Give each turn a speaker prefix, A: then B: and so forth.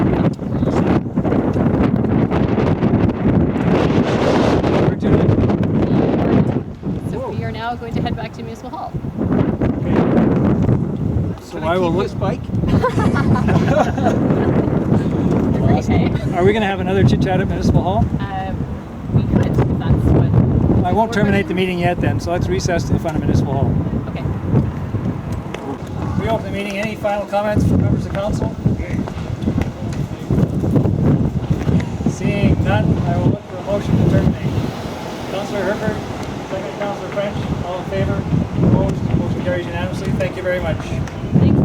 A: Princeton Municipal Hall.
B: So I will look.
C: bike?
A: Okay.
B: Are we going to have another chit chat at Municipal Hall?
A: Um, we could. That's what.
B: I won't
A: We're
B: terminate the
A: gonna-
B: meeting yet then, so let's recess in front of Municipal Hall.
A: Okay.
B: We open the meeting. Any final comments from members of council? Seeing none, I will look for a motion to terminate. Councillor Herbert, second Councillor French, all in favor? Opposed? Motion carries unanimously. Thank you very much.